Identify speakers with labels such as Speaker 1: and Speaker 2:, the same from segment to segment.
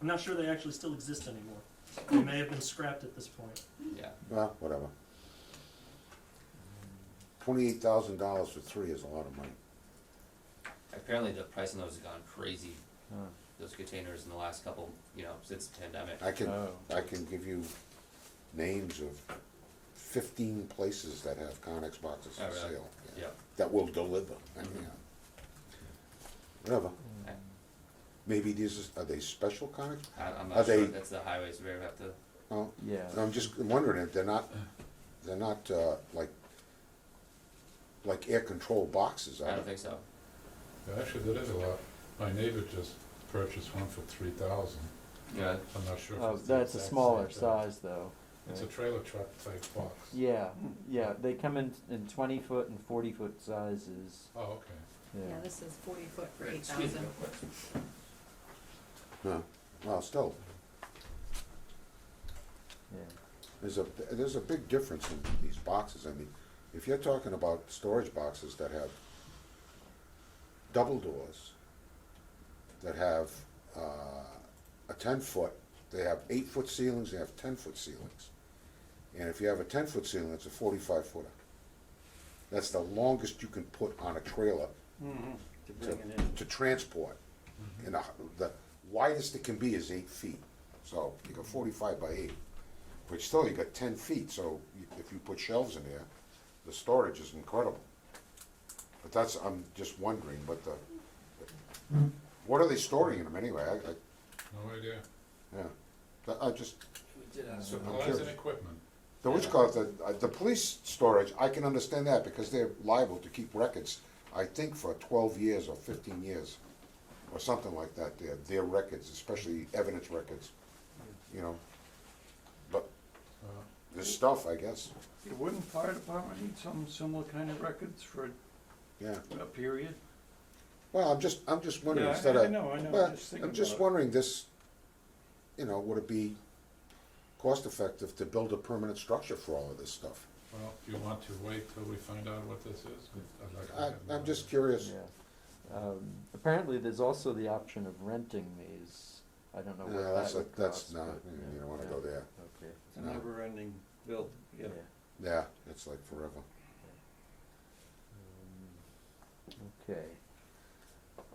Speaker 1: I'm not sure they actually still exist anymore. They may have been scrapped at this point.
Speaker 2: yeah.
Speaker 3: Well, whatever. Twenty-eight thousand dollars for three is a lot of money.
Speaker 2: Apparently the price on those has gone crazy, those containers in the last couple, you know, since the pandemic.
Speaker 3: I can,
Speaker 4: Oh.
Speaker 3: I can give you names of fifteen places that have Conex boxes
Speaker 2: Oh,
Speaker 3: for
Speaker 2: really?
Speaker 3: sale.
Speaker 2: Yeah, Mm-hmm.
Speaker 3: That will deliver, I mean, whatever.
Speaker 4: Mm.
Speaker 2: Okay.
Speaker 3: Maybe these, is- are they special Conex?
Speaker 2: I, I'm
Speaker 3: Are
Speaker 2: not sure
Speaker 3: they-
Speaker 2: if that's the highways, we have to,
Speaker 3: Oh,
Speaker 4: Yeah.
Speaker 3: I'm just wondering if they're not, they're not, uh, like, like air control boxes,
Speaker 2: I
Speaker 3: are
Speaker 2: don't
Speaker 3: they?
Speaker 2: think so.
Speaker 5: Yeah, Actually, that is a lot. My neighbor just purchased one for three thousand.
Speaker 2: Yeah,
Speaker 5: I'm not sure. if
Speaker 4: Oh,
Speaker 5: it's the
Speaker 4: that's a
Speaker 5: exact
Speaker 4: smaller
Speaker 5: same thing.
Speaker 4: size though.
Speaker 5: It's a
Speaker 4: right?
Speaker 5: trailer truck type box.
Speaker 4: Yeah, yeah,
Speaker 3: Hmm.
Speaker 4: they come in, in twenty foot and forty foot sizes,
Speaker 5: Oh, okay.
Speaker 4: yeah.
Speaker 6: Yeah, this is forty foot for eight
Speaker 2: excuse me
Speaker 6: thousand.
Speaker 2: real quick.
Speaker 3: No, well, still,
Speaker 4: Yeah.
Speaker 3: there's a, there's a big difference in these boxes, I mean, if you're talking about storage boxes that have double doors, that have, uh, a ten-foot, they have eight-foot ceilings, they have ten-foot ceilings. And if you have a ten-foot ceiling, it's a forty-five footer. That's the longest you can put on a trailer
Speaker 1: To
Speaker 3: bring it Mm-hmm. to transport. And the- the widest it can be is eight feet. So you got forty-five by eight, but still you got ten feet, so you- if you put shelves in there, the storage is incredible. But that's, I'm just wondering, but the, what are they storing in them anyway? I, I,
Speaker 5: No idea.
Speaker 3: yeah, But I just,
Speaker 5: Supplies and
Speaker 3: curious.
Speaker 5: equipment.
Speaker 3: the, which call it, the, uh, the police storage, I can understand that because they're liable to keep records, I think for twelve years or fifteen years, or something like that, their, their records, especially evidence records, you know? But
Speaker 5: Uh,
Speaker 3: this stuff, I guess,
Speaker 7: The wooden fire department need some similar kind of records for
Speaker 3: yeah.
Speaker 7: a period?
Speaker 3: Well, I'm just, I'm just wondering,
Speaker 7: Yeah, I-
Speaker 3: instead
Speaker 7: I
Speaker 3: of.
Speaker 7: know, I know,
Speaker 3: well,
Speaker 7: just thinking
Speaker 3: I'm just
Speaker 7: about it.
Speaker 3: wondering this, you know, would it be cost-effective to build a permanent structure for all of this stuff?
Speaker 5: Well, do you want to wait till we find out what this is? 'Cause I'd like to
Speaker 3: I,
Speaker 5: have
Speaker 3: I'm
Speaker 5: more.
Speaker 3: just curious.
Speaker 4: Yeah. Um, apparently there's also the option of renting these, I don't know what
Speaker 3: No,
Speaker 4: that
Speaker 3: that's, a-
Speaker 4: would
Speaker 3: that's
Speaker 4: cost,
Speaker 3: not,
Speaker 4: but,
Speaker 3: you-
Speaker 4: yeah,
Speaker 3: you don't wanna
Speaker 4: yeah,
Speaker 3: go there.
Speaker 4: Okay,
Speaker 7: It's a never ending bill, yeah.
Speaker 4: yeah.
Speaker 3: Yeah, it's like forever.
Speaker 4: Um, Okay.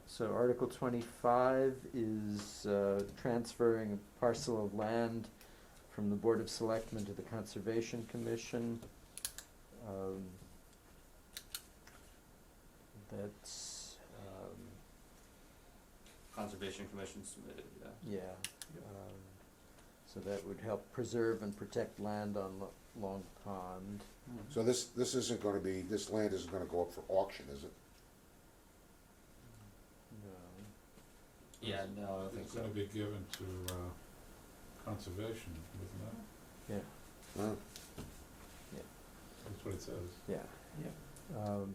Speaker 4: So Article twenty-five is, uh, transferring a parcel of land from the Board of Selectmen to the Conservation Commission. Um, That's, um,
Speaker 2: Conservation Commission submitted, yeah.
Speaker 4: yeah, um, so that would help preserve and protect land on Lo- Long Pond.
Speaker 3: So this, this isn't gonna be, this land isn't gonna go up for auction, is it?
Speaker 4: No.
Speaker 2: Yeah, no, I don't think
Speaker 5: It's
Speaker 2: so.
Speaker 5: gonna be given to, uh, conservation, isn't it?
Speaker 4: Yeah. Mm.
Speaker 3: Huh?
Speaker 5: That's what it says,
Speaker 4: Yeah. Um,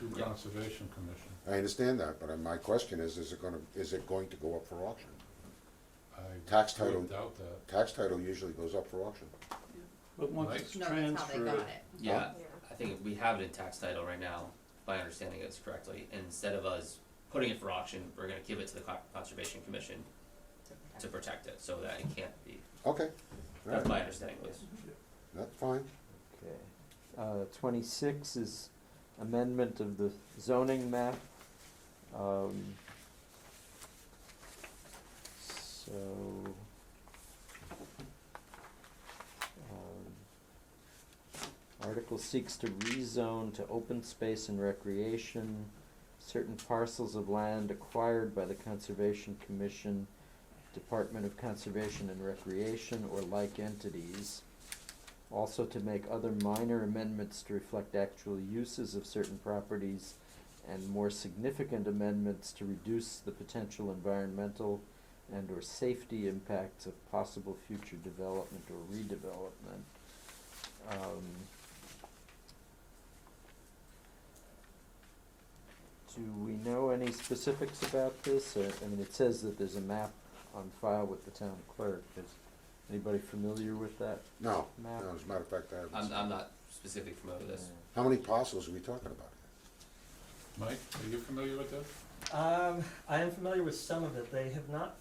Speaker 5: to
Speaker 2: Yeah.
Speaker 5: conservation commission.
Speaker 3: I understand that, but my question is, is it gonna, is it going to go up for auction?
Speaker 5: I
Speaker 3: Tax
Speaker 5: would
Speaker 3: title-
Speaker 5: Doubt that.
Speaker 3: Tax title usually goes up for auction.
Speaker 7: But
Speaker 5: Right.
Speaker 7: once it's
Speaker 6: No, that's how they got
Speaker 7: transferred,
Speaker 6: it.
Speaker 2: Yeah,
Speaker 6: Yeah.
Speaker 2: I think we have it in tax title right now, by understanding it's correctly, instead of us putting it for auction, we're gonna give it to the Con- Conservation Commission to protect it, so that it can't be,
Speaker 3: Okay, all
Speaker 2: that's
Speaker 3: right,
Speaker 2: my understanding was.
Speaker 3: that's fine.
Speaker 4: Okay. Uh, twenty-six is amendment of the zoning map. Um, so. um, Article seeks to rezone to open space and recreation certain parcels of land acquired by the Conservation Commission, Department of Conservation and Recreation, or like entities. Also to make other minor amendments to reflect actual uses of certain properties and more significant amendments to reduce the potential environmental and or safety impacts of possible future development or redevelopment. Um, do we know any specifics about this? Uh, I mean, it says that there's a map on file with the town clerk. Is anybody familiar with that
Speaker 3: No,
Speaker 4: map?
Speaker 3: no, as a matter of fact, I haven't.
Speaker 2: I'm,
Speaker 3: seen
Speaker 2: I'm
Speaker 3: it.
Speaker 2: not specific familiar with this.
Speaker 3: How many parcels are we talking about?
Speaker 5: Mike, are you familiar with this?
Speaker 1: Um, I am familiar with some of it. They have not